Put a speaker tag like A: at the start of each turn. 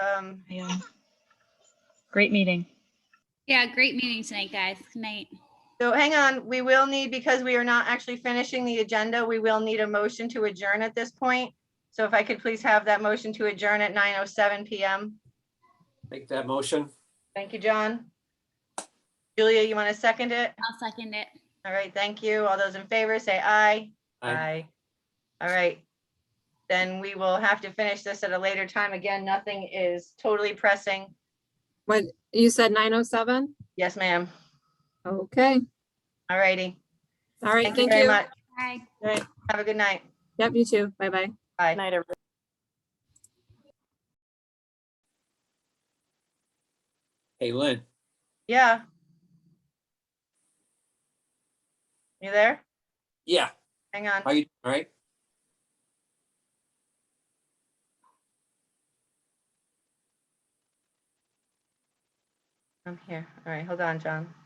A: Um,
B: Yeah. Great meeting.
C: Yeah, great meeting tonight, guys. Good night.
A: so hang on, we will need, because we are not actually finishing the agenda, we will need a motion to adjourn at this point. So if I could please have that motion to adjourn at nine oh seven PM.
D: Make that motion.
A: Thank you, John. Julia, you want to second it?
C: I'll second it.
A: All right, thank you. All those in favor, say aye.
D: Aye.
A: All right. Then we will have to finish this at a later time. Again, nothing is totally pressing.
E: What, you said nine oh seven?
A: Yes, ma'am.
E: Okay,
A: All righty.
E: all right,
A: Thank you
E: thank
A: very
E: you.
A: much.
C: Bye.
A: Have a good night.
E: Yep, you too. Bye-bye.
A: Bye.
F: Night, everyone.
D: Hey, Lynn,
A: Yeah. You there?
D: yeah,
A: Hang on.
D: are you, all right?
A: I'm here. All right, hold on, John.